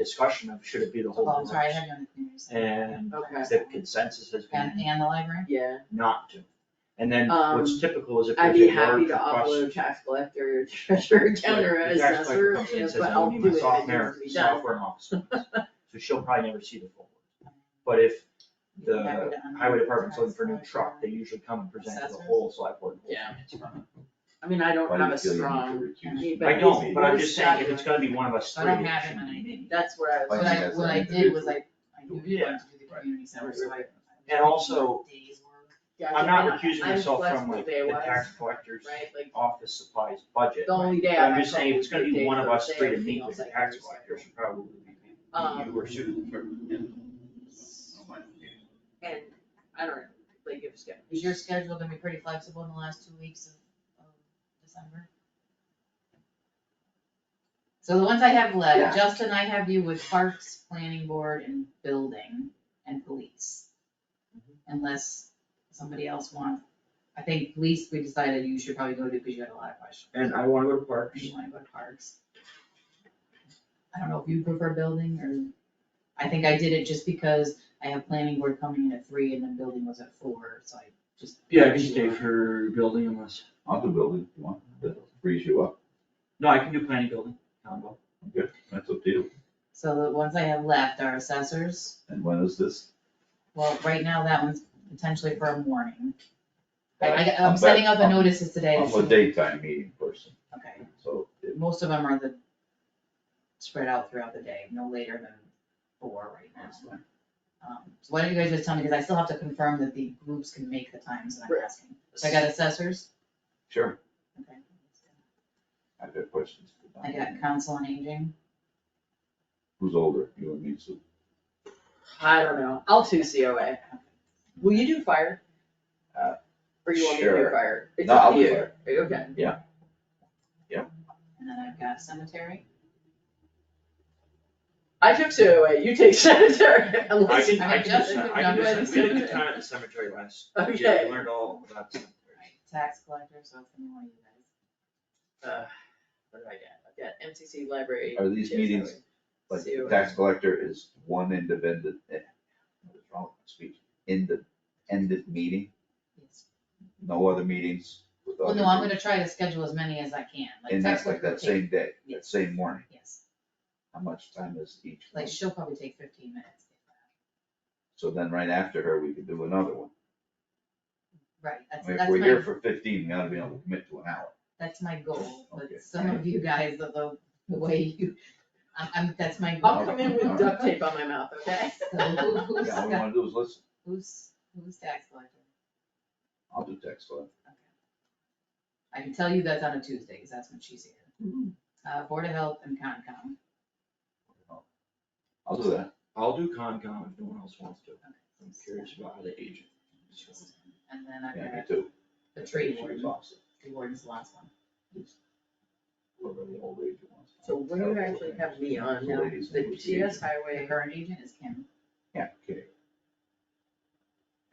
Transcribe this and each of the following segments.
discussion of should it be the whole Oh, I'm sorry, I business? had you on the community center. And Okay. the consensus has been And, and the library? Yeah, not to. And then what's Um, typical is if I'd there's be a large happy to request. upload tax collector, treasurer, counter the tax collector assessor, comes in and says, but "I I'll need do my it, it software- needs to be done. Software and office supplies." so she'll probably never see the full one. But if the highway department's looking for a new truck, they usually come and present to the Assessors. whole select board. Yeah. I mean, I don't have a strong, but I don't, he's- but I'm he's just saying, if got- it's gonna be one of us I three, don't it have it should in be my- me. that's what I What was, I, what I did was I, I knew we wanted to do the Yeah. community center, so I. And also- Days work. yeah, I'm not recusing I'm myself from flexible like day the wise, tax collector's Right, like, office supplies budget. the only day But I. I'm just saying, if it's gonna be one of us Day three to of meet with meals, the like, tax Thursday. collector, it should probably be Um, You were shooting for, and I don't know, like, if it's gonna. Is your schedule gonna be pretty flexible in the last two weeks of, of December? So the ones I have Yeah. left, Justin, I have you with parks, planning board and building and police. Unless somebody else wants, I think police, we decided you should probably go to because you had a lot of questions. And I wanna go to If parks. you wanna go to parks. I don't know if you prefer building or, I think I did it just because I have planning board coming in at three and then building was at four, so I just. Yeah, I can stay for building unless, I'll do building if you want, that frees you up, no, I can do planning building, combo. that's up to you. So the ones I have left are assessors, And when is this? well, right now that one's potentially for a morning. I, I'm am back- setting out the I'm- notices today. I'm a daytime meeting person, Okay, so it- most of them are the, spread out throughout the day, no later than four right now. Um, So why don't you guys just tell me, because I still have to confirm that the groups can make the times that I'm Right. asking. So I got assessors, sure, okay, I've got questions. for I Don. got council on aging, Who's older, you and me, so I don't know, I'll do COA. Will you do fire? Uh, Or you want me to do sure. fire? It's No, up I'll to do you. Okay, and then I've got cemetery. I took COA, you take sanitary, I unless. can, I I can, mean, do just cem- if I can, do cem- we you're not had a doing good time at the cemetery last, yeah, Okay. we learned all about cemetery. Tax collector, so it's more you guys. Uh, What do I get? I've got MCC library. are these TSA, meetings, like, the COA. tax collector is one independent, eh, what is wrong with my speech, Inde- ended meeting, Yes. no other meetings with Well, other no, I'm groups, gonna try to schedule as many as I can, like. And that's text like will that take- same day, that Yes. same morning, Yes, how much time is each? like one? she'll probably take fifteen minutes. So then right after her, we could do another one. Right, that's, I mean, that's If we're here my, for fifteen, we gotta be able to commit to an hour. that's my goal, Okay. but some of you guys, the, the- the way you, I'm, I'm, that's my goal. I'll come in with duct tape on my mouth, okay? So who- who's, Yeah, all we got- wanna do is listen, who's, who's tax collector? I'll do text line. Okay. I can tell you that's on a Tuesday, cause that's when she's here. Uh, Board of Health and Concom, I'll do that, I'll do Concom if no one else wants to, I'm curious about how they age it. and then I've yeah, me got too. the tree She's warden, awesome. tree warden's the last one. Whoever the old lady wants. So what do you actually have me on now? Ladies and The ladies. TS The highway, current agent is Kim, Yeah, okay.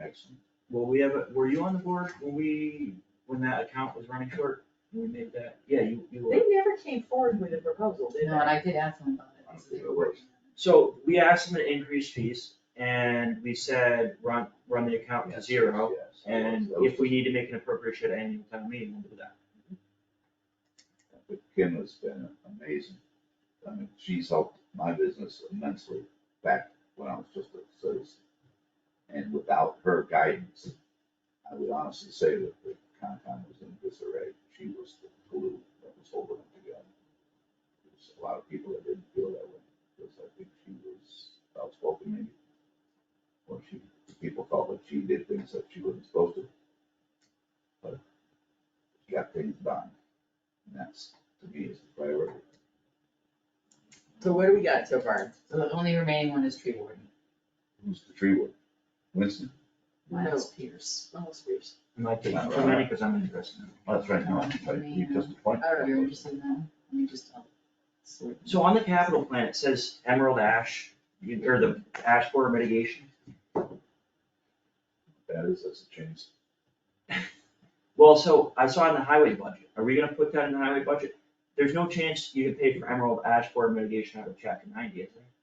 Excellent, Well, we have, a were you on the board when we, when that account was running short? We made that, yeah, you, you they were. never came forward with a proposal, did no, and they? I did ask him about it, so they were working on it. So we asked them to increase fees and we said, run, run the account to zero. yes. And if we need to make an appropriation at annual town meeting, we'll do that. But Kim has been amazing, I mean, she's helped my business immensely back when I was just a citizen. And without her guidance, I would honestly say that the Concom was in disarray, she was the glue that was holding it together. There's a lot of people that didn't feel that way, because I think she was outspoken maybe. Or she, people felt that she did things that she wasn't supposed to. But she got things done. And that's, to me, is the priority. So what do we got so far? So the only remaining one is tree warden, Who's the tree warden? Winston? Miles Pierce. Oh, screws. And I think, for many, because I'm interested. That's right, no, right, you just appointed. I don't You're interested in that one? Let me just, I'll sort. So on the capital plan, it says emerald ash, you- or the ash border mitigation. That is, that's a change. Well, so I saw in the highway budget, are we gonna put that in the highway budget? There's no chance you can pay for emerald ash border mitigation out of chapter ninety, is there?